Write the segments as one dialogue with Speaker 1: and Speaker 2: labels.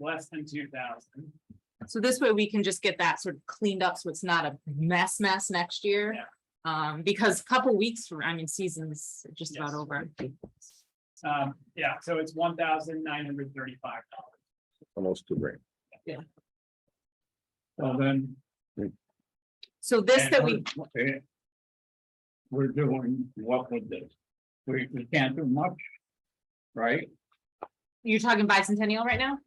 Speaker 1: less than two thousand.
Speaker 2: So this way we can just get that sort of cleaned up, so it's not a mess, mess next year.
Speaker 1: Yeah.
Speaker 2: Um, because a couple weeks from, I mean, season's just about
Speaker 1: Yes.
Speaker 2: over.
Speaker 1: Um, yeah, so it's one thousand nine hundred thirty-five dollars.
Speaker 3: almost two grand.
Speaker 1: Well, then.
Speaker 2: So this that we,
Speaker 4: And we're- We're doing what with this? We, we can't do much, right?
Speaker 2: you're talking bicentennial right now?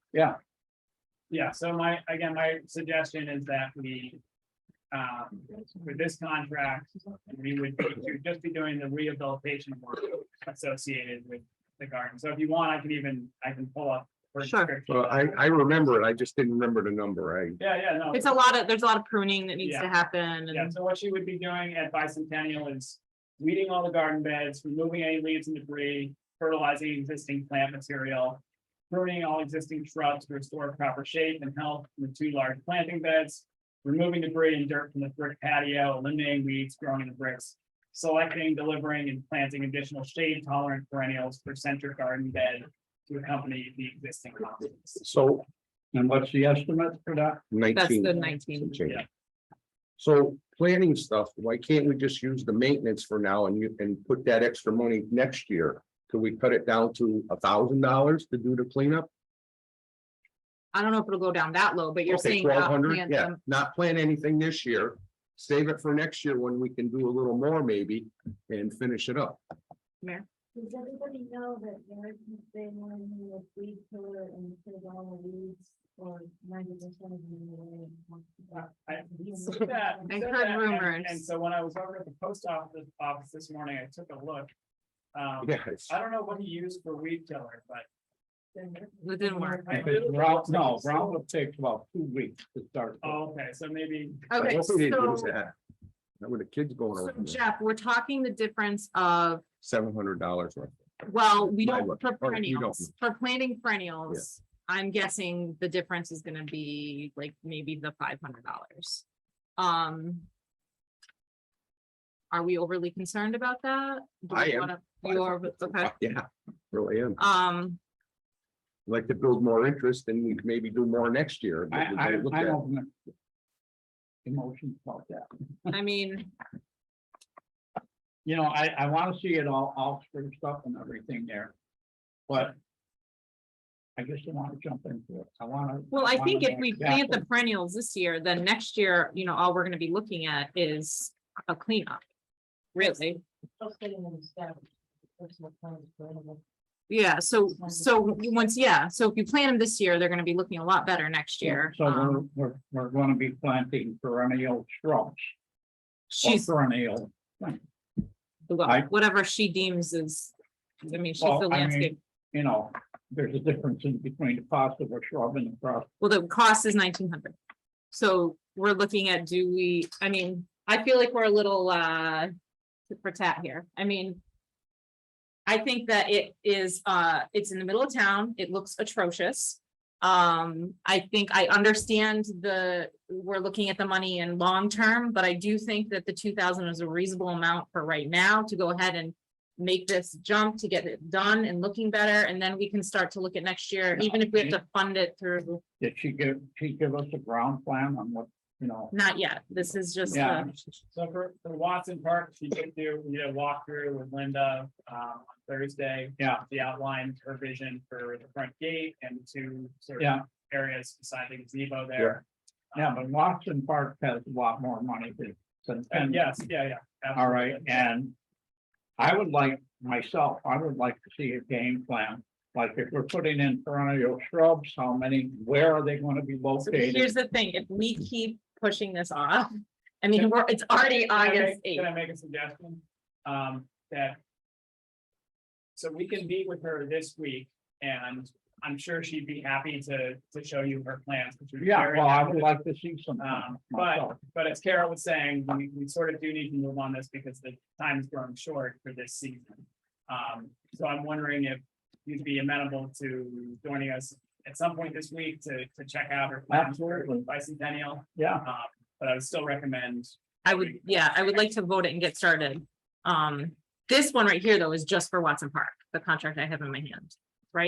Speaker 1: Yeah, so my, again, my suggestion is that we. Um, with this contract, we would be- we'd just be doing the rehabilitation work associated with the garden. So if you want, I can even, I can pull up. her
Speaker 2: Sure.
Speaker 1: description.
Speaker 3: Well, I, I remember it. I just didn't remember the number. I,
Speaker 1: Yeah, yeah, no.
Speaker 2: It's a lot of, there's a lot of pruning that needs to
Speaker 1: Oh. Yeah.
Speaker 2: happen
Speaker 1: Yeah,
Speaker 2: and,
Speaker 1: so what she would be doing at bicentennial is weeding all the garden beds, removing any leaves and debris, fertilizing existing plant material. Pruning all existing shrubs to restore proper shape and health in the two large planting beds. Removing debris and dirt from the brick patio, eliminating weeds growing in the bricks. Selecting, delivering and planting additional shade tolerant perennials for center garden bed to accompany the existing. houses.
Speaker 3: so
Speaker 4: And what's the estimate for that?
Speaker 2: that's
Speaker 3: nineteen.
Speaker 2: the nineteen.
Speaker 3: some change.
Speaker 1: Yeah.
Speaker 3: So planning stuff, why can't we just use the maintenance for now and you, and put that extra money next year? Could we cut it down to a thousand dollars to do the cleanup?
Speaker 2: I don't know if it'll go down that low, but you're
Speaker 3: Okay,
Speaker 2: saying. uh, about
Speaker 3: 1,200,
Speaker 2: plan
Speaker 3: Yeah,
Speaker 2: them.
Speaker 3: not plan anything this year. Save it for next year when we can do a little more maybe and finish it up.
Speaker 5: Does everybody know that Eric has been wanting me with weed killer and killed all the weeds or ninety percent of them?
Speaker 1: Uh, I said that-
Speaker 2: I
Speaker 1: said
Speaker 2: heard
Speaker 1: that, and-
Speaker 2: rumors.
Speaker 1: And so when I was over at the post office, office this morning, I took a look. Um,
Speaker 3: Yes.
Speaker 1: I don't know what he used for weed killer, but.
Speaker 2: It didn't work.
Speaker 1: I-
Speaker 4: Because ground, no, ground would take about two weeks to start.
Speaker 1: Oh, okay, so maybe,
Speaker 3: I
Speaker 2: Okay,
Speaker 3: hope we didn't use
Speaker 2: so
Speaker 3: that. Now with the kids going
Speaker 2: so
Speaker 3: around,
Speaker 2: Jeff, we're talking the difference of,
Speaker 3: seven hundred dollars worth.
Speaker 2: well, we
Speaker 3: My
Speaker 2: don't,
Speaker 3: look.
Speaker 2: for
Speaker 3: Oh, you don't.
Speaker 2: perennials, for planting perennials. I'm guessing the difference is gonna be like maybe the five hundred dollars. Um. Are we overly concerned about that? Do we
Speaker 3: I am.
Speaker 2: wanna- You are, okay,
Speaker 3: Yeah, really am.
Speaker 2: um,
Speaker 3: Like to build more interest and we maybe do more next year.
Speaker 4: I,
Speaker 3: but we
Speaker 4: I,
Speaker 3: gotta look
Speaker 4: I
Speaker 3: at-
Speaker 4: don't. Emotions about that.
Speaker 2: I mean,
Speaker 4: You know, I, I wanna see it all, all through stuff and everything there. But. I just don't wanna jump into it. I wanna.
Speaker 2: well, I think if
Speaker 4: wanna know
Speaker 2: we plant the
Speaker 4: exactly-
Speaker 2: perennials this year, then next year, you know, all we're gonna be looking at is a cleanup. Really,
Speaker 5: Just getting them established. That's what kind of problem.
Speaker 2: yeah, so, so once, yeah, so if you plant them this year, they're gonna be looking a lot better next year.
Speaker 4: So we're,
Speaker 2: Um,
Speaker 4: we're, we're gonna be planting perennial shrubs. or
Speaker 2: She's,
Speaker 4: Perennial. I-
Speaker 2: whatever she deems is, I mean, she's
Speaker 4: Well,
Speaker 2: the
Speaker 4: I mean-
Speaker 2: landscape,
Speaker 4: you know, there's a difference in between the cost of a shrub and the cost.
Speaker 2: well, the cost is nineteen hundred. So we're looking at, do we, I mean, I feel like we're a little, uh, tit for tat here, I mean. I think that it is, uh, it's in the middle of town, it looks atrocious. Um, I think I understand the, we're looking at the money in long term, but I do think that the two thousand is a reasonable amount for right now to go ahead and. Make this jump to get it done and looking better, and then we can start to look at next year, even if we have to fund it through,
Speaker 4: Did she give, she give us a ground plan on what, you know?
Speaker 2: not yet, this is just.
Speaker 4: Yeah.
Speaker 2: a-
Speaker 1: so for, for Watson Park, she did do, you know, walkthrough with Linda, um, on Thursday.
Speaker 4: Yeah.
Speaker 1: The outline, her vision for the front gate and two sort of
Speaker 4: Yeah.
Speaker 1: areas beside the gazebo there.
Speaker 4: Yeah, but Watson Park has a lot more money than- than.
Speaker 1: And yes, Uh, yeah, yeah.
Speaker 4: All right,
Speaker 1: absolutely.
Speaker 4: and I would like, myself, I would like to see a game plan. Like if we're putting in perennial shrubs, how many, where are they gonna be
Speaker 2: So
Speaker 4: located?
Speaker 2: Here's the thing, if we keep pushing this off, I mean, we're, it's already
Speaker 1: Can I make-
Speaker 2: August eighth.
Speaker 1: Can I make a suggestion? Um, that. So we can meet with her this week and I'm sure she'd be happy to, to show you her plans. which are
Speaker 4: Yeah,
Speaker 1: very
Speaker 4: well, I would
Speaker 1: active.
Speaker 4: like to see some.
Speaker 1: Um, but-
Speaker 4: myself.
Speaker 1: But as Kara was saying, we, we sort of do need to move on this because the time is growing short for this season. Um, so I'm wondering if you'd be amenable to joining us at some point this week to, to check out her. plans for
Speaker 4: Absolutely.
Speaker 1: Bicentennial,
Speaker 4: Yeah,
Speaker 1: um, but I would still recommend
Speaker 2: I would, yeah, I would like to vote it and get started. Um, this one right here, though, is just for Watson Park, the contract I have in my hand.